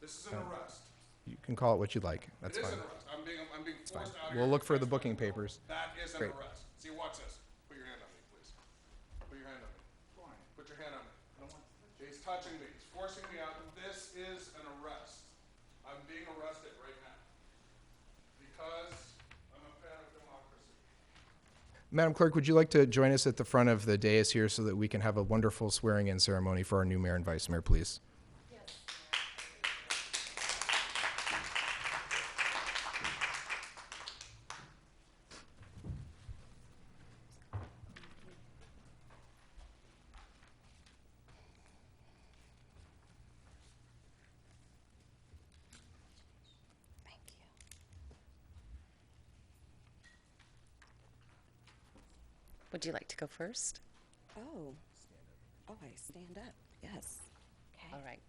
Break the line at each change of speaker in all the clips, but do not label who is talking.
This is an arrest.
You can call it what you'd like.
It
Oh, That's
is
fine.
an arrest. I'm being, I'm being forced out of here.
We'll look for the
That's
booking
not-
papers.
That is an
Great.
arrest. See, watch this. Put your hand on me, please. Put your hand on me. Put your hand on me. He's touching me. He's forcing me out. This is an arrest. I'm being arrested right now because I'm a fan of democracy.
Madam Clerk, would you like to join us at the front of the dais here so that we can have a wonderful swearing-in ceremony for our new mayor and vice mayor, please?
Thank you.
Would you like to go first?
Oh. Oh, I stand up. Yes.
All right.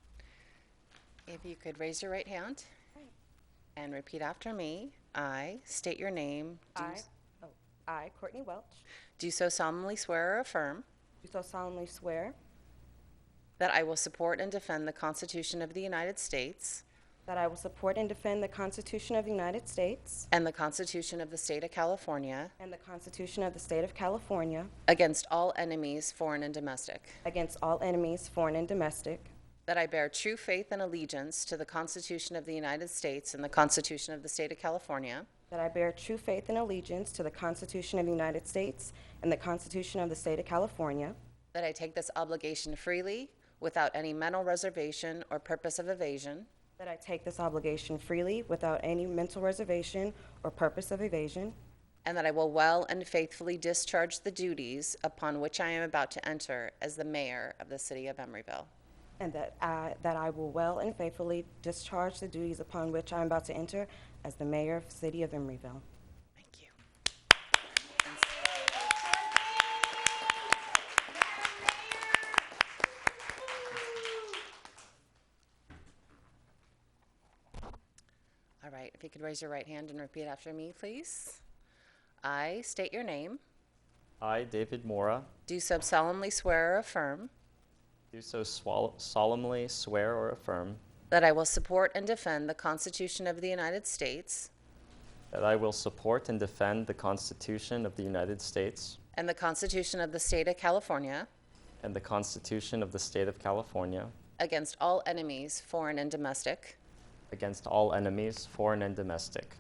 If you could raise your right hand
Right.
and repeat after me, I state your name. do
I,
s-
oh, I, Courtney Welch,
Do so solemnly swear or affirm
do so solemnly swear
that I will support and defend the Constitution of the United States
that I will support and defend the Constitution of the United States
and the Constitution of the State of California
and the Constitution of the State of California
against all enemies, foreign and domestic.
against all enemies, foreign and domestic,
That I bear true faith and allegiance to the Constitution of the United States and the Constitution of the State of California.
that I bear true faith and allegiance to the Constitution of the United States and the Constitution of the State of California,
That I take this obligation freely, without any mental reservation or purpose of evasion.
that I take this obligation freely without any mental reservation or purpose of evasion,
And that I will well and faithfully discharge the duties upon which I am about to enter as the mayor of the city of Emeryville.
and that I, that I will well and faithfully discharge the duties upon which I am about to enter as the mayor of the city of Emeryville.
Thank you. All right, if you could raise your right hand and repeat after me, please. I state your name,
I, David Mora,
do so solemnly swear or affirm
do so swal- solemnly swear or affirm
that I will support and defend the Constitution of the United States
that I will support and defend the Constitution of the United States
and the Constitution of the State of California
and the Constitution of the State of California
against all enemies, foreign and domestic,
against all enemies, foreign and domestic,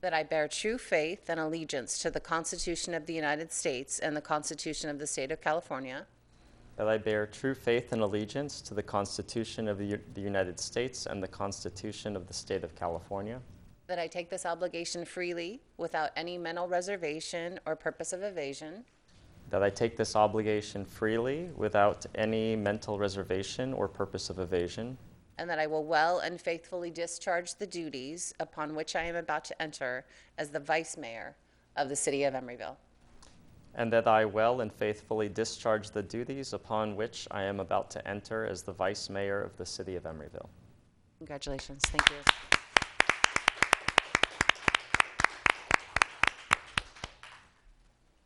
that I bear true faith and allegiance to the Constitution of the United States and the Constitution of the State of California,
that I bear true faith and allegiance to the Constitution of the, U- the United States and the Constitution of the State of California,
that I take this obligation freely without any mental reservation or purpose of evasion,
that I take this obligation freely without any mental reservation or purpose of evasion,
and that I will well and faithfully discharge the duties upon which I am about to enter as the Vice Mayor of the City of Emeryville.
And that I well and faithfully discharge the duties upon which I am about to enter as the Vice Mayor of the City of Emeryville.
Congratulations. Thank you.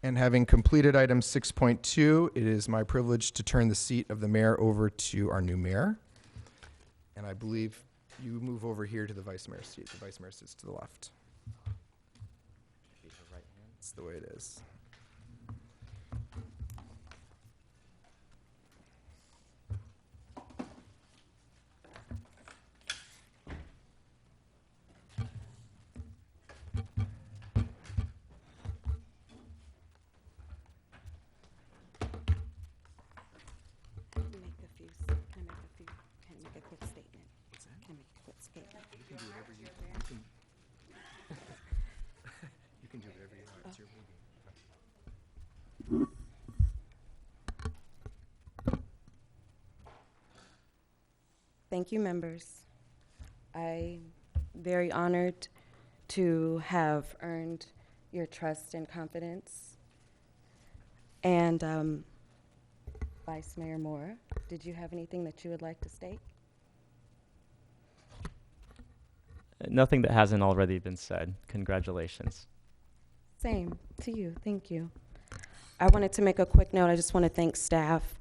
And having completed item 6.2, it is my privilege to turn the seat of the mayor over to our new mayor. And I believe you move over here to the vice mayor's seat. The vice mayor sits to the left. That's the way it is.
Can I make a few, s- can I make a few, can I make a quick statement? Can I make a quick statement?
You can do whatever you want. It's your meeting.
Thank you, members. I'm very honored to have earned your trust and confidence. And um, Vice Mayor Moore, did you have anything that you would like to state?
Nothing that hasn't already been said. Congratulations.
Same to you. Thank you. I wanted to make a quick note. I just want to thank staff